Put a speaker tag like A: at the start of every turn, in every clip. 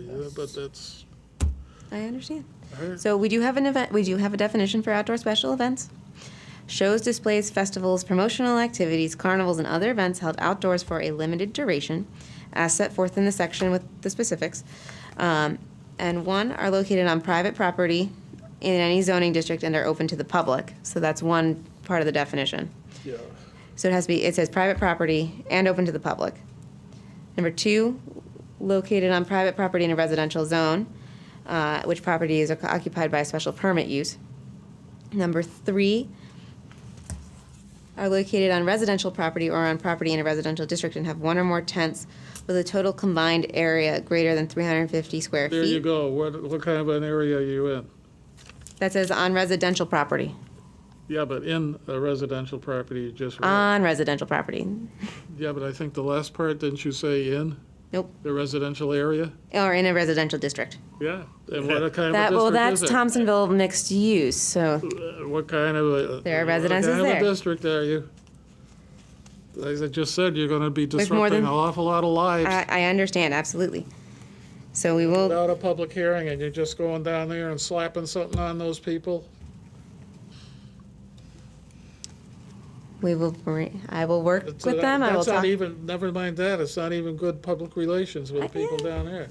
A: Yeah, but that's,
B: I understand.
A: Alright.
B: So we do have an event, we do have a definition for outdoor special events. Shows, displays, festivals, promotional activities, carnivals, and other events held outdoors for a limited duration, as set forth in the section with the specifics. Um, and one are located on private property in any zoning district and are open to the public. So that's one part of the definition.
A: yeah,
B: So it has to be, it says private property and open to the public. Number two, located on private property in a residential zone, uh, which property is occupied by a special permit use. Number three, are located on residential property or on property in a residential district and have one or more tents with a total combined area greater than 350 square feet.
A: there you go. What, what kind of an area are you in?
B: That says on residential property,
A: Yeah, but in a residential property, you just read.
B: on residential property.
A: Yeah, but I think the last part, didn't you say in
B: Nope,
A: the residential area?
B: or in a residential district.
A: Yeah, and what kind
B: That, well,
A: of a
B: that's
A: district is
B: Thompsonville mixed use, so
A: it? What kind of a?
B: There are residences
A: What kind
B: there.
A: of a district are you? As I just said, you're gonna be
B: There's more
A: disrupting an
B: than-
A: awful lot of lives
B: I, I understand, absolutely. So we will,
A: without a public hearing, and you're just going down there and slapping something on those people?
B: we will, bring- I will work
A: It's-
B: with them, I will
A: That's not
B: talk,
A: even, never mind that, it's not even good public relations with the people down there.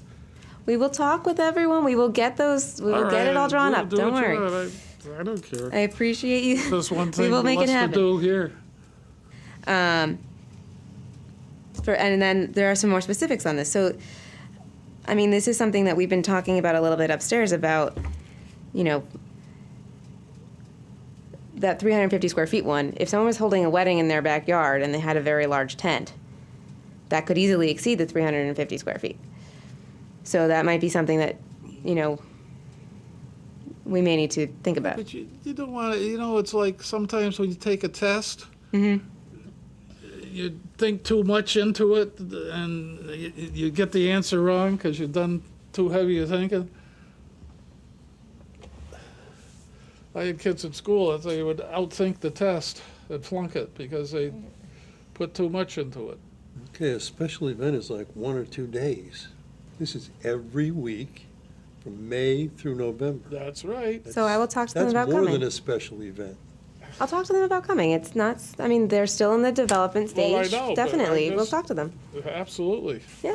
B: we will talk with everyone, we will get those, we will get it all drawn up, don't worry.
A: I I don't care.
B: I appreciate you.
A: There's one
B: We
A: thing
B: will make it
A: less to
B: happen.
A: do here.
B: Um, for, and then there are some more specifics on this. So, I mean, this is something that we've been talking about a little bit upstairs about, you know, that 350 square feet one. If someone was holding a wedding in their backyard and they had a very large tent, that could easily exceed the 350 square feet. So that might be something that, you know, we may need to think about.
A: But you, you don't want to, you know, it's like sometimes when you take a test, you think too much into it and you, you get the answer wrong because you've done too heavy of thinking. I had kids in school that they would outthink the test and flunk it because they put too much into it.
C: Okay, a special event is like one or two days. This is every week from May through November.
A: That's right.
B: So I will talk to them
C: That's
B: about
C: more
B: coming.
C: than a special event.
B: I'll talk to them about coming. It's not, I mean, they're still in the development
A: Well, I
B: stage.
A: know, but I
B: Definitely. We'll
A: just-
B: talk to them.
A: Absolutely.
B: Yeah.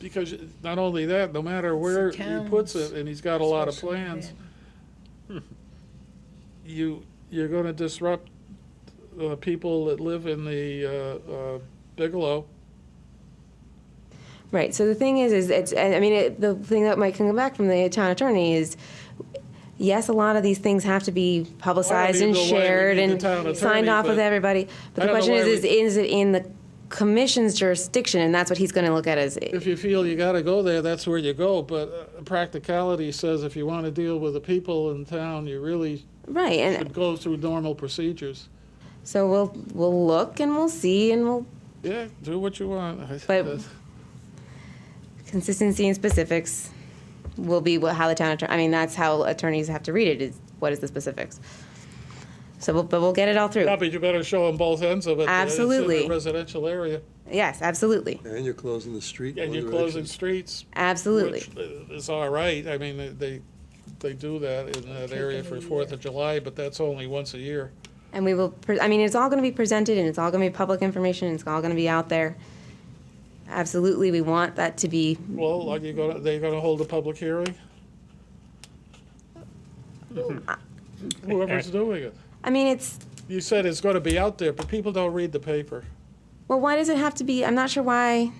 A: Because not only that, no matter where he puts it, and he's got a lot of plans, you, you're gonna disrupt the people that live in the, uh, uh, Bigelow.
B: Right. So the thing is, is it's, I I mean, it, the thing that might come back from the town attorney is, yes, a lot of these things have to be publicized and
A: either way, we
B: shared
A: need the
B: and
A: town
B: signed
A: attorney,
B: off with
A: but
B: everybody. But
A: I don't
B: the
A: know
B: question is,
A: why
B: is, is it in the commission's jurisdiction? And that's what he's going to look at as,
A: If you feel you gotta go there, that's where you go, but uh, practicality says if you wanna deal with the people in town, you really
B: right. And
A: should go through normal procedures.
B: so we'll, we'll look and we'll see and we'll
A: Yeah, do what you want.
B: But- consistency and specifics will be what, how the town attorney, I mean, that's how attorneys have to read it, is what is the specifics. So, we'll- but we'll get it all through.
A: Yeah, but you better show them both ends of it. that it's in a
B: Absolutely.
A: Residential area,
B: Yes, absolutely,
C: And you're closing the street. in
A: and
C: one
A: you're closing
C: direction.
A: streets,
B: absolutely.
A: Which uh, is all right, I mean, they- they, they do that in that area for Fourth of July, but that's only once a year.
B: And we will, pre- I mean, it's all going to be presented and it's all going to be public information, and it's all going to be out there. Absolutely, we want that to be,
A: Well, are you gonna, they're gonna hold a public hearing? Whoever's doing it.
B: I mean, it's,
A: You said it's gonna be out there, but people don't read the paper.
B: well, why does it have to be, I'm not sure why,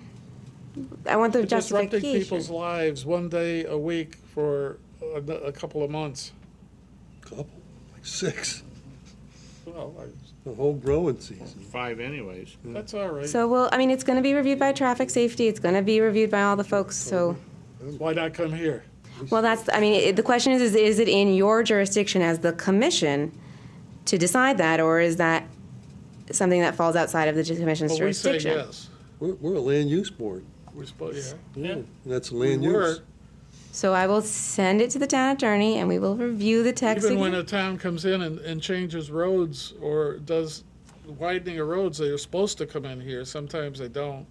B: I want the
A: Disrupting people's
B: justification.
A: lives one day a week for a, a couple of months.
C: Couple, like six,
A: Well, I-
C: the whole growing season.
D: five anyways.
A: that's all right.
B: So, well, I mean, it's going to be reviewed by traffic safety, it's going to be reviewed by all the folks, so.
A: Why not come here?
B: Well, that's, I mean, it- the question is, is, is it in your jurisdiction as the commission to decide that, or is that something that falls outside of the commission's
A: Well, we say
B: jurisdiction?
A: yes.
C: We're, we're a land use board.
A: We're supposed, yeah.
C: And that's
A: We
C: land
A: were,
C: use.
B: So I will send it to the town attorney, and we will review the text.
A: even when
B: again.
A: a town comes in and, and changes roads or does widening of roads, they're supposed to come in here. Sometimes they don't.